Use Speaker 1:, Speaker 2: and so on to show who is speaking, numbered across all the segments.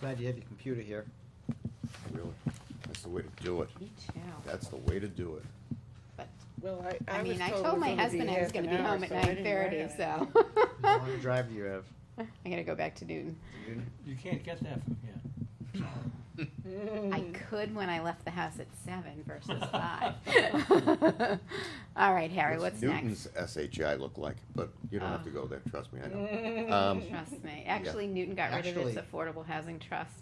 Speaker 1: Glad you have your computer here.
Speaker 2: Really? That's the way to do it.
Speaker 3: Me too.
Speaker 2: That's the way to do it.
Speaker 3: But,
Speaker 4: Well, I,
Speaker 3: I
Speaker 4: I was
Speaker 3: mean, I
Speaker 4: told it
Speaker 3: told
Speaker 4: was
Speaker 3: my
Speaker 4: gonna
Speaker 3: husband I was
Speaker 4: half
Speaker 3: gonna
Speaker 4: an
Speaker 3: be
Speaker 4: hour,
Speaker 3: home at
Speaker 4: so I didn't
Speaker 3: nine thirty,
Speaker 4: write on
Speaker 3: so.
Speaker 4: it.
Speaker 1: How long a drive do you have?
Speaker 3: I gotta go back to Newton.
Speaker 1: Noon?
Speaker 5: You can't get that from here.
Speaker 3: I
Speaker 4: Mm.
Speaker 3: could when I left the house at seven versus five. All right, Harry, what's next?
Speaker 2: Newton's SHI look like? But you don't have
Speaker 3: Oh.
Speaker 2: to go there, trust me, I know. Um,
Speaker 3: Trust me. Actually, Newton got rid of its
Speaker 1: Actually-
Speaker 3: affordable housing trust.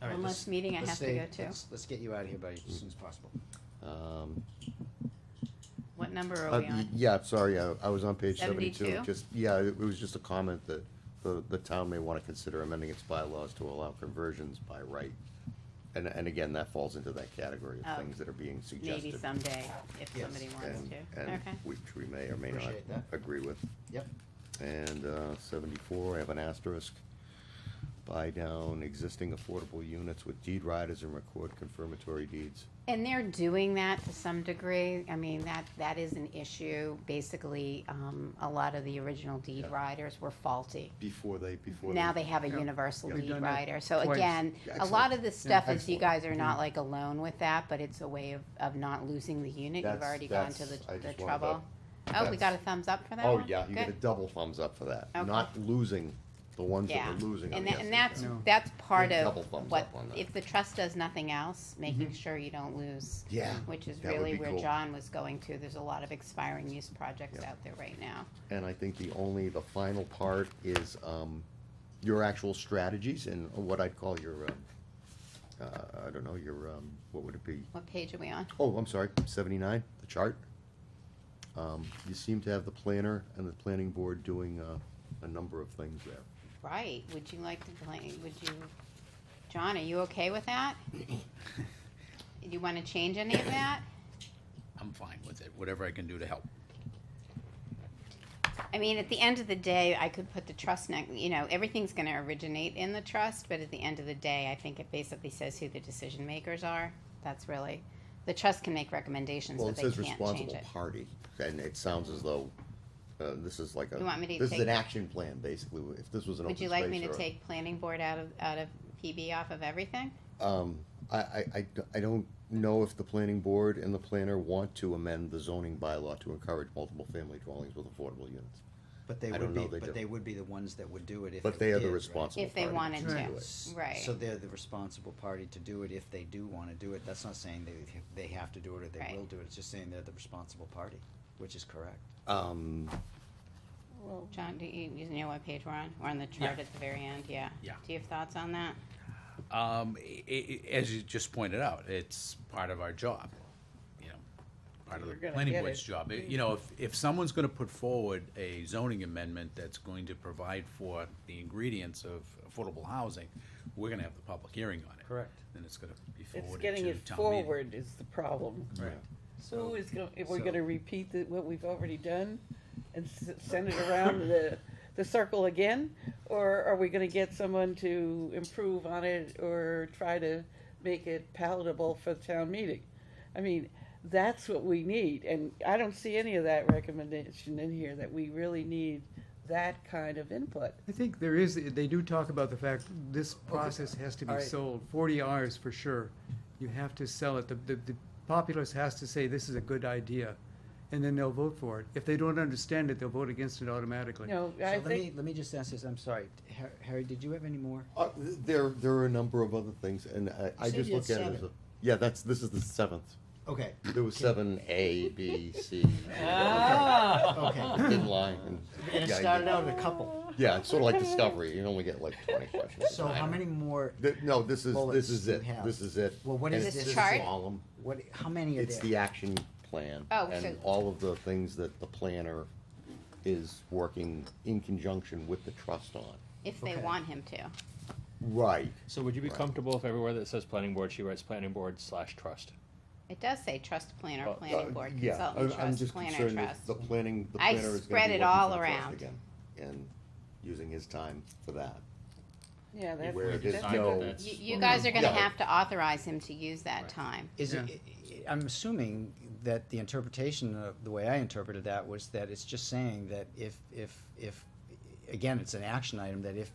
Speaker 1: All right,
Speaker 3: One
Speaker 1: let's-
Speaker 3: less meeting I
Speaker 1: let's
Speaker 3: have to
Speaker 1: stay-
Speaker 3: go to.
Speaker 1: let's- Let's get you out of here, buddy, as soon as possible.
Speaker 2: um,
Speaker 3: What number are
Speaker 2: uh,
Speaker 3: we on?
Speaker 2: Yeah, I'm sorry, I I was on page seventy-two.
Speaker 3: 72?
Speaker 2: Just, yeah, it was just a comment that the, the town may want to consider amending its bylaws to allow conversions by right. And, and again, that falls into that category
Speaker 3: Oh.
Speaker 2: of things that are being suggested.
Speaker 3: Maybe someday, if
Speaker 1: Yes,
Speaker 3: somebody wants
Speaker 2: and-
Speaker 3: to.
Speaker 2: And
Speaker 3: Okay.
Speaker 2: which we may or may not
Speaker 1: Appreciate that.
Speaker 2: agree with.
Speaker 1: Yep.
Speaker 2: And uh, seventy-four, I have an asterisk. Buy down existing affordable units with deed riders and record confirmatory deeds.
Speaker 3: And they're doing that to some degree. I mean, that, that is an issue. Basically, um, a lot of the original deed
Speaker 2: Yeah.
Speaker 3: riders were faulty.
Speaker 2: Before they, before.
Speaker 3: Now they have a universal
Speaker 2: Yeah.
Speaker 6: We've
Speaker 3: lead
Speaker 6: done that
Speaker 3: rider, so
Speaker 6: twice.
Speaker 3: again,
Speaker 2: Yeah,
Speaker 3: a lot
Speaker 2: excellent.
Speaker 3: of this stuff
Speaker 2: Yeah,
Speaker 3: is you
Speaker 2: excellent. Mm-hmm.
Speaker 3: guys are not like alone with that, but it's a way of, of not losing the unit, you've
Speaker 2: That's-
Speaker 3: already gone to the,
Speaker 2: that's- I
Speaker 3: the
Speaker 2: just wanted to-
Speaker 3: trouble. Oh, we
Speaker 2: that's-
Speaker 3: got a thumbs up for that
Speaker 2: Oh,
Speaker 3: one?
Speaker 2: yeah, you get a
Speaker 3: Good.
Speaker 2: double thumbs up for that.
Speaker 3: Okay.
Speaker 2: Not losing the ones that
Speaker 3: Yeah,
Speaker 2: are losing on
Speaker 3: and
Speaker 2: the
Speaker 3: that, and
Speaker 2: SHI.
Speaker 3: that's,
Speaker 6: No.
Speaker 3: that's part
Speaker 2: Big
Speaker 3: of
Speaker 2: double thumbs
Speaker 3: what,
Speaker 2: up on that.
Speaker 3: if the trust does nothing else,
Speaker 6: Mm-hmm.
Speaker 3: making sure you don't lose.
Speaker 2: Yeah,
Speaker 3: Which is
Speaker 2: that would
Speaker 3: really
Speaker 2: be
Speaker 3: where
Speaker 2: cool.
Speaker 3: John was going to, there's a lot of expiring use projects
Speaker 2: Yeah.
Speaker 3: out there right now.
Speaker 2: And I think the only, the final part is um, your actual strategies and what I'd call your, um, uh, I don't know, your, um, what would it be?
Speaker 3: What page are we on?
Speaker 2: Oh, I'm sorry, seventy-nine, the chart. Um, you seem to have the planner and the planning board doing, uh, a number of things there.
Speaker 3: Right, would you like to play, would you, John, are you okay with that? Do you wanna change any of that?
Speaker 6: I'm fine with it, whatever I can do to help.
Speaker 3: I mean, at the end of the day, I could put the trust neck, you know, everything's gonna originate in the trust, but at the end of the day, I think it basically says who the decision makers are. That's really, the trust can make recommendations,
Speaker 2: Well,
Speaker 3: but
Speaker 2: it
Speaker 3: they
Speaker 2: says
Speaker 3: can't change
Speaker 2: responsible
Speaker 3: it.
Speaker 2: party, and it sounds as though, uh, this is like a.
Speaker 3: You want me to
Speaker 2: This is
Speaker 3: take-
Speaker 2: an action plan, basically, if this was an open
Speaker 3: Would
Speaker 2: space
Speaker 3: you like me
Speaker 2: or
Speaker 3: to
Speaker 2: a-
Speaker 3: take planning board out of, out of PB off of everything?
Speaker 2: Um, I, I, I d- I don't know if the planning board and the planner want to amend the zoning bylaw to encourage multiple family dwellings with affordable units.
Speaker 1: But they
Speaker 2: I
Speaker 1: would
Speaker 2: don't know,
Speaker 1: be,
Speaker 2: they
Speaker 1: but
Speaker 2: don't.
Speaker 1: they would be the ones that would do it if.
Speaker 2: But
Speaker 1: it
Speaker 2: they are
Speaker 1: did,
Speaker 2: the
Speaker 1: right?
Speaker 2: responsible
Speaker 3: If they
Speaker 2: party to
Speaker 3: wanted
Speaker 2: do
Speaker 6: to.
Speaker 2: it.
Speaker 1: S-
Speaker 3: Right.
Speaker 1: So they're the responsible party to do it if they do wanna do it. That's not saying they, they have to do it or they
Speaker 3: Right.
Speaker 1: will do it. It's just saying they're the responsible party, which is correct.
Speaker 2: Um,
Speaker 3: John, do you, you know what page we're on? We're on the chart at the very end, yeah.
Speaker 6: Yeah.
Speaker 3: Do you have thoughts on that?
Speaker 6: Um, i- i- as you just pointed out, it's part of our job, you know, part of the
Speaker 4: You're gonna
Speaker 6: planning
Speaker 4: get
Speaker 6: board's
Speaker 4: it.
Speaker 6: job. I- You know, if, if someone's gonna put forward a zoning amendment that's going to provide for the ingredients of affordable housing, we're gonna have the public hearing on it.
Speaker 5: Correct.
Speaker 6: And it's gonna be
Speaker 4: It's
Speaker 6: forwarded to town
Speaker 4: getting
Speaker 6: meeting.
Speaker 4: it forward is the problem.
Speaker 6: Right.
Speaker 4: So who is going, if we're
Speaker 5: so-
Speaker 4: gonna repeat the- what we've already done and s- send it around the, the circle again? Or are we gonna get someone to improve on it or try to make it palatable for the town meeting? I mean, that's what we need, and I don't see any of that recommendation in here, that we really need that kind of input.
Speaker 6: I think there is, they do talk about the fact this process has to
Speaker 1: All
Speaker 6: be
Speaker 1: right.
Speaker 6: sold, forty hours for sure. You have to sell it, the, the, the populace has to say this is a good idea, and then they'll vote for it. If they don't understand it, they'll vote against it automatically.
Speaker 4: No,
Speaker 1: So
Speaker 4: I
Speaker 1: let me,
Speaker 4: think,
Speaker 1: let me just ask this, I'm sorry, Har- Harry, did you have any more?
Speaker 2: uh, there, there are a number of other things, and I, I
Speaker 1: said
Speaker 2: just
Speaker 1: you
Speaker 2: look
Speaker 1: had
Speaker 2: at it as a,
Speaker 1: seven.
Speaker 2: yeah, that's, this is the seventh.
Speaker 1: Okay, Ah.
Speaker 2: There was seven A, B, C. E,
Speaker 4: Ah!
Speaker 1: okay.
Speaker 2: In line. and-
Speaker 1: And it
Speaker 2: yeah, you-
Speaker 1: started out at a couple.
Speaker 2: Yeah, it's sort of like Discovery, you only get like twenty questions.
Speaker 1: So how many more,
Speaker 2: Th- No, this is,
Speaker 1: bullets
Speaker 2: this is
Speaker 1: you
Speaker 2: it,
Speaker 1: have?
Speaker 2: this is it.
Speaker 1: Well, what
Speaker 2: And
Speaker 1: is
Speaker 2: it's
Speaker 3: this
Speaker 2: just
Speaker 3: chart?
Speaker 2: solemn.
Speaker 1: what, how many are
Speaker 2: It's the
Speaker 1: there?
Speaker 2: action plan.
Speaker 3: Oh,
Speaker 2: And
Speaker 3: so-
Speaker 2: all of the things that the planner is working in conjunction with the trust on.
Speaker 3: If they
Speaker 1: Okay.
Speaker 3: want him to.
Speaker 2: Right.
Speaker 7: So would you be
Speaker 2: Right.
Speaker 7: comfortable if everywhere that says planning board, she writes planning board slash trust?
Speaker 3: It does say trust planner,
Speaker 7: Uh,
Speaker 3: planning board, consultant trust, planner trust.
Speaker 2: The planning, the
Speaker 3: I
Speaker 2: planner is gonna be
Speaker 3: spread it
Speaker 2: working
Speaker 3: all
Speaker 2: for the trust
Speaker 3: around.
Speaker 2: again And using his time for that.
Speaker 4: yeah, that's.
Speaker 2: Where it is
Speaker 4: that's-
Speaker 2: no-
Speaker 3: You, you guys are gonna
Speaker 2: Yeah.
Speaker 3: have to authorize him to use that time.
Speaker 1: Is it,
Speaker 6: Yeah.
Speaker 1: i- i- I'm assuming that the interpretation of, the way I interpreted that was that it's just saying that if, if, if, again, it's an action item, that if